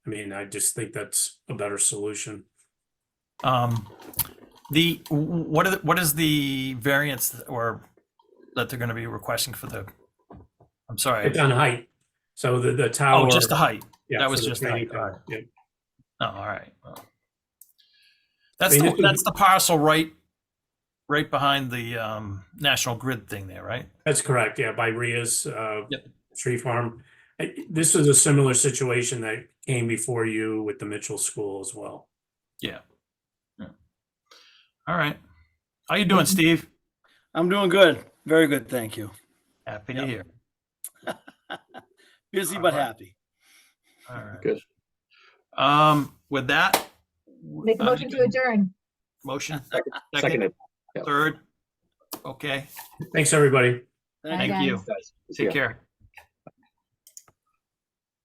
mean, I just think that's a better solution. Um, the, wh- what are, the- what is the variance or that they're gonna be requesting for the, I'm sorry, It's on height. So the, the tower. oh, just the height? yeah, that for was the just the training height, all tower. right. Yeah. Oh, all right. well. That's, mean, the this would that's the parcel right, right behind the, um, National Grid thing there, right? That's correct, yeah, by Ria's uh Yep. tree farm. I- This is a similar situation that came before you with the Mitchell School as well. All right. How you doing, Steve? I'm doing good. Very good, thank you. Happy to Yep. hear. Busy All but right. happy. All right. Good. Um, with that. Make a uh, motion to adjourn. Motion, second, Seconded. yeah. third. Okay, Thanks, everybody. Thank Bye, you. thank you. guys. guys. See ya. Take care.